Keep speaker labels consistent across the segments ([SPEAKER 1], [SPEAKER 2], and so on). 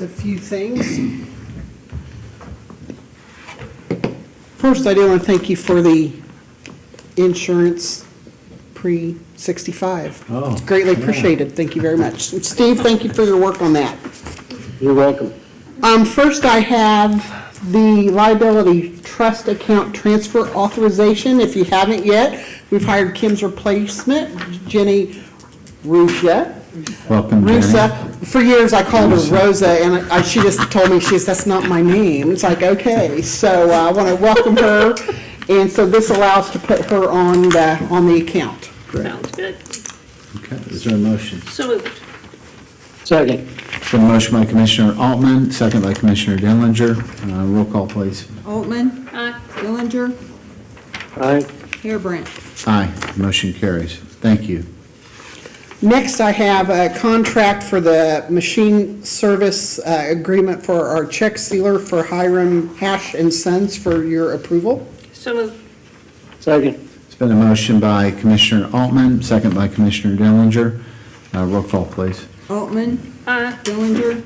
[SPEAKER 1] a few things. First, I do want to thank you for the insurance pre-65.
[SPEAKER 2] Oh,
[SPEAKER 1] Greatly
[SPEAKER 2] yeah.
[SPEAKER 1] appreciated, thank you very much. And Steve, thank you for your work on that.
[SPEAKER 2] You're welcome.
[SPEAKER 1] Um, first I have the liability trust account transfer authorization, if you haven't yet. We've hired Kim's replacement, Jenny Rusha.
[SPEAKER 2] Welcome, Jenny.
[SPEAKER 1] Rusa, for years I called her Rosa, and I, she just told me, she says, that's not my name. It's like, okay, so uh, I want to welcome her, and so this allows to put her on the, on the account.
[SPEAKER 3] Sounds good.
[SPEAKER 2] Okay, is there a motion?
[SPEAKER 3] So moved.
[SPEAKER 4] Second.
[SPEAKER 2] So motion by Commissioner Altman, second by Commissioner Dillinger. Uh, Roll call, please.
[SPEAKER 5] Altman,
[SPEAKER 3] Aye.
[SPEAKER 5] Dillinger,
[SPEAKER 4] Aye.
[SPEAKER 5] Harebrant.
[SPEAKER 2] Aye, motion carries. Thank you.
[SPEAKER 1] Next, I have a contract for the machine service uh, agreement for our check sealer for Hiram Hash and Sons for your approval.
[SPEAKER 3] So moved.
[SPEAKER 4] Second.
[SPEAKER 2] It's been a motion by Commissioner Altman, second by Commissioner Dillinger. Uh, Roll call, please.
[SPEAKER 5] Altman,
[SPEAKER 3] Aye.
[SPEAKER 5] Dillinger.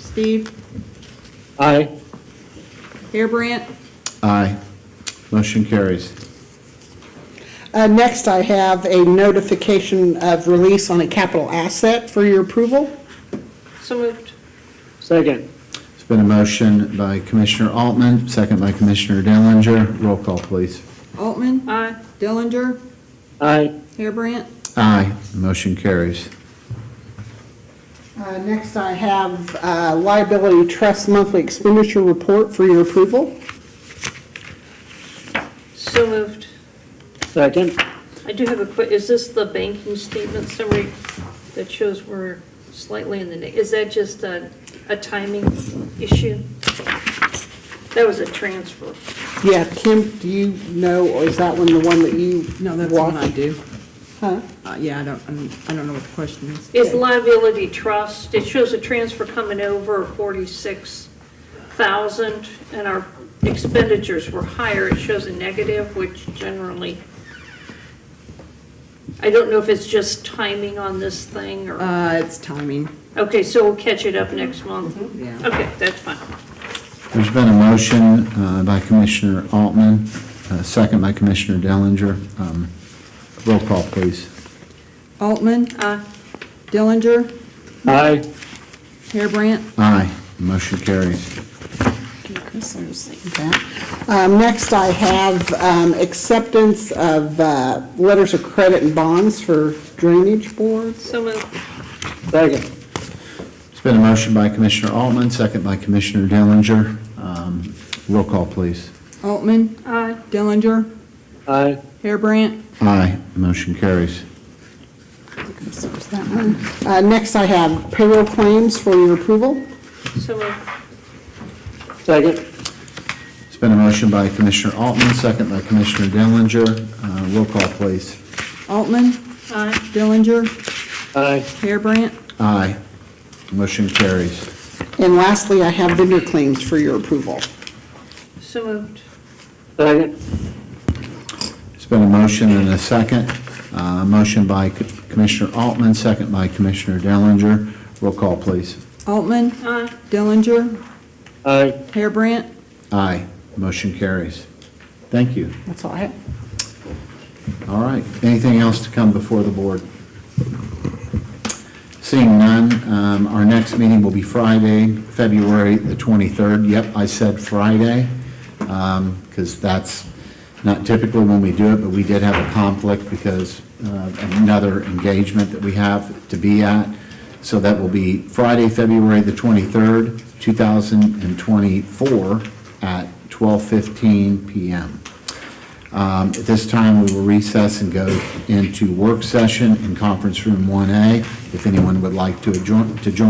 [SPEAKER 5] Steve,
[SPEAKER 4] Aye.
[SPEAKER 5] Harebrant,
[SPEAKER 2] Aye, motion carries.
[SPEAKER 1] Uh, Next, I have a notification of release on a capital asset for your approval.
[SPEAKER 3] So moved.
[SPEAKER 4] Second.
[SPEAKER 2] It's been a motion by Commissioner Altman, second by Commissioner Dillinger. Roll call, please.
[SPEAKER 5] Altman,
[SPEAKER 3] Aye.
[SPEAKER 5] Dillinger,
[SPEAKER 4] Aye.
[SPEAKER 5] Harebrant,
[SPEAKER 2] Aye, motion carries.
[SPEAKER 1] Uh, Next, I have uh, liability trust monthly expenditure report for your approval.
[SPEAKER 3] So moved.
[SPEAKER 4] Second.
[SPEAKER 3] I do have a quick, is this the banking statement summary that shows we're slightly in the neg, is that just a, a timing issue? That was a transfer.
[SPEAKER 1] Yeah, Kim, do you know, or is that one the one that you watched?
[SPEAKER 5] No, that's the one I do.
[SPEAKER 1] Huh?
[SPEAKER 5] Uh, Yeah, I don't, I'm- I don't know what the question is.
[SPEAKER 3] Is liability trust, it shows a transfer coming over of forty-six thousand, and our expenditures were higher, it shows a negative, which generally, I don't know if it's just timing on this thing, or,
[SPEAKER 5] Uh, It's timing.
[SPEAKER 3] okay, so we'll catch it up next month.
[SPEAKER 5] mm-hmm, Yeah.
[SPEAKER 3] Okay, that's fine.
[SPEAKER 2] There's been a motion uh, by Commissioner Altman, uh, second by Commissioner Dellinger. Um, Roll call, please.
[SPEAKER 5] Altman,
[SPEAKER 3] Uh,
[SPEAKER 5] Dillinger,
[SPEAKER 4] Aye.
[SPEAKER 5] Harebrant,
[SPEAKER 2] Aye, motion carries.
[SPEAKER 1] Um, Next, I have um, acceptance of uh, letters of credit and bonds for drainage boards.
[SPEAKER 3] so moved.
[SPEAKER 4] Second.
[SPEAKER 2] It's been a motion by Commissioner Altman, second by Commissioner Dellinger. Um, Roll call, please.
[SPEAKER 5] Altman,
[SPEAKER 3] Aye.
[SPEAKER 5] Dillinger,
[SPEAKER 4] Aye.
[SPEAKER 5] Harebrant,
[SPEAKER 2] Aye, motion carries.
[SPEAKER 1] So there's that one. Uh, Next, I have payroll claims for your approval.
[SPEAKER 3] so moved.
[SPEAKER 4] Second.
[SPEAKER 2] It's been a motion by Commissioner Altman, second by Commissioner Dellinger. Uh, Roll call, please.
[SPEAKER 5] Altman, Uh.
[SPEAKER 3] Aye.
[SPEAKER 5] Dillinger,
[SPEAKER 4] Aye.
[SPEAKER 5] Harebrant,
[SPEAKER 2] Aye, motion carries.
[SPEAKER 1] And lastly, I have vendor claims for your approval.
[SPEAKER 3] so moved.
[SPEAKER 4] Second.
[SPEAKER 2] It's been a motion and a second. Uh, Motion by C- Commissioner Altman, second by Commissioner Dellinger. Roll call, please.
[SPEAKER 5] Altman,
[SPEAKER 3] Aye.
[SPEAKER 5] Dillinger,
[SPEAKER 4] Aye.
[SPEAKER 5] Harebrant,
[SPEAKER 2] Aye. Motion carries. Thank you.
[SPEAKER 1] That's all I have.
[SPEAKER 2] All right. Anything else to come before the board? Seeing none, um, our next meeting will be Friday, February the 23rd. Yep, I said Friday, because that's not typically when we do it, but we did have a conflict because uh, another engagement that we have to be at. So that will be Friday, February the 23rd, 2024, at 12:15 PM. Um, At this time, we will recess and go into work session in Conference Room 1A. If anyone would like to adjourn, to join